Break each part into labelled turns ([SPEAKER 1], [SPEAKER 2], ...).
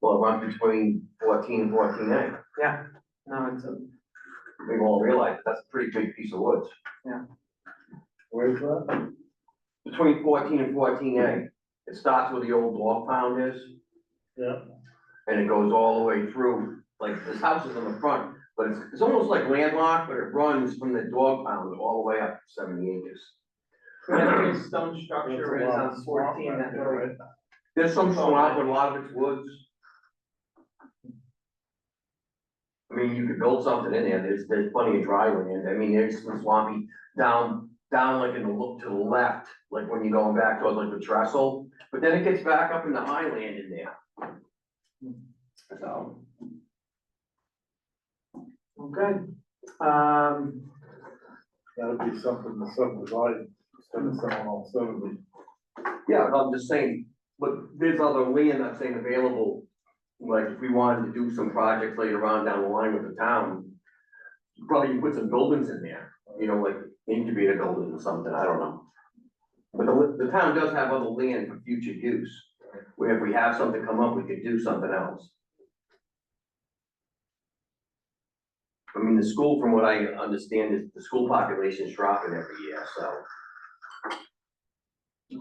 [SPEAKER 1] will run between fourteen and fourteen A.
[SPEAKER 2] No, it's a,
[SPEAKER 1] We've all realized that's a pretty big piece of woods.
[SPEAKER 3] Where's that?
[SPEAKER 1] Between fourteen and fourteen A, it starts where the old log pound is,
[SPEAKER 3] Yeah,
[SPEAKER 1] and it goes all the way through, like, this house is on the front, but it's, it's almost like landlocked, but it runs from the dog pound all the way up to seventy acres.
[SPEAKER 2] whatever his stone structure
[SPEAKER 3] There's a
[SPEAKER 2] is
[SPEAKER 3] lot of
[SPEAKER 2] on fourteen,
[SPEAKER 3] swamp
[SPEAKER 2] that
[SPEAKER 3] back there,
[SPEAKER 2] road.
[SPEAKER 3] right?
[SPEAKER 1] There's some swamp, but a lot of it's woods. I mean, you could build something in there, there's, there's plenty of dry land, I mean, there's some swampy down, down like in the look to the left, like when you're going back towards like the trestle, but then it gets back up in the highland in there. So,
[SPEAKER 2] Well, good. Um,
[SPEAKER 3] That'd be something to subdivide, instead of selling all seven of them.
[SPEAKER 1] yeah, but I'm just saying, but there's other land I'm saying available. Like, if we wanted to do some projects later on down the line with the town, probably you put some buildings in there. you know, like incubator building or something, I don't know. But the, the town does have other land for future use, where if we have something come up, we could do something else. I mean, the school, from what I understand, is the school population is dropping every year, so.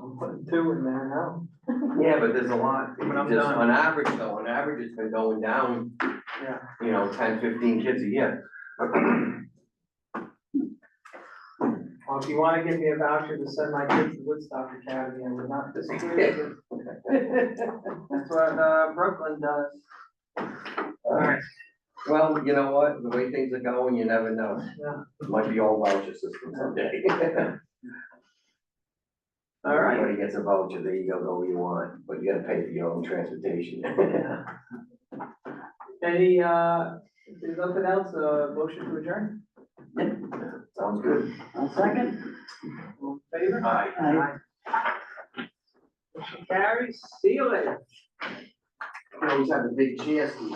[SPEAKER 2] I'll put two in there now.
[SPEAKER 1] Yeah, but there's a lot,
[SPEAKER 2] But I'm
[SPEAKER 1] just
[SPEAKER 2] done.
[SPEAKER 1] on average, though, on average, it's been going down.
[SPEAKER 2] Yeah.
[SPEAKER 1] You know, 10, 15 kids a year.
[SPEAKER 2] Well, if you wanna give me a voucher to send my kids to Woodstock Academy, I would not disagree with you. That's what, uh, Brooklyn does.
[SPEAKER 1] Alright. Well, you know what, the way things are going, you never know.
[SPEAKER 2] Yeah.
[SPEAKER 1] It Might be all voucher system someday.
[SPEAKER 2] All right.
[SPEAKER 1] Everybody gets a voucher, there you go, go where you want, but you gotta pay for your own transportation.
[SPEAKER 2] Any, uh, if there's nothing else, uh, motion to adjourn?
[SPEAKER 1] Sounds good.
[SPEAKER 4] I'll second.
[SPEAKER 2] All in Favor?
[SPEAKER 1] Aye.
[SPEAKER 4] Aye.
[SPEAKER 2] Motion carries, see you later.
[SPEAKER 1] You always have a big chance